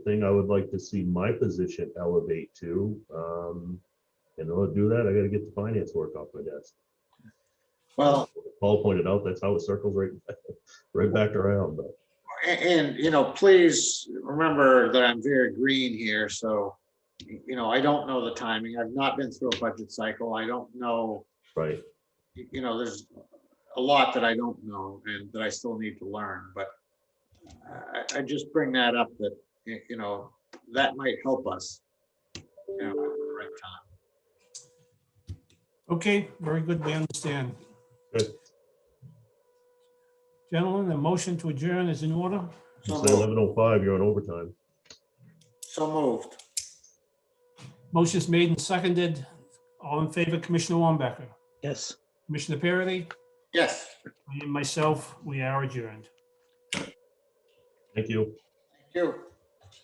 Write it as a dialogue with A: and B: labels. A: thing I would like to see my position elevate to. Um, and in order to do that, I gotta get the finance work off my desk.
B: Well,
A: Paul pointed out, that's how it circles right, right back around, but
B: a- and, you know, please remember that I'm very green here, so, you know, I don't know the timing. I've not been through a budget cycle. I don't know,
A: right.
B: you know, there's a lot that I don't know and that I still need to learn, but I, I just bring that up that, y- you know, that might help us. you know, at the right time.
C: Okay, very good, we understand.
A: Good.
C: Gentlemen, the motion to adjourn is in order.
B: So moved.
A: Eleven oh five, you're on overtime.
B: So moved.
C: Motion's made and seconded. All in favor, Commissioner Wambacher,
D: Yes.
C: Commissioner Parity,
B: Yes.
C: and myself, we are adjourned.
A: Thank you.
B: Thank you.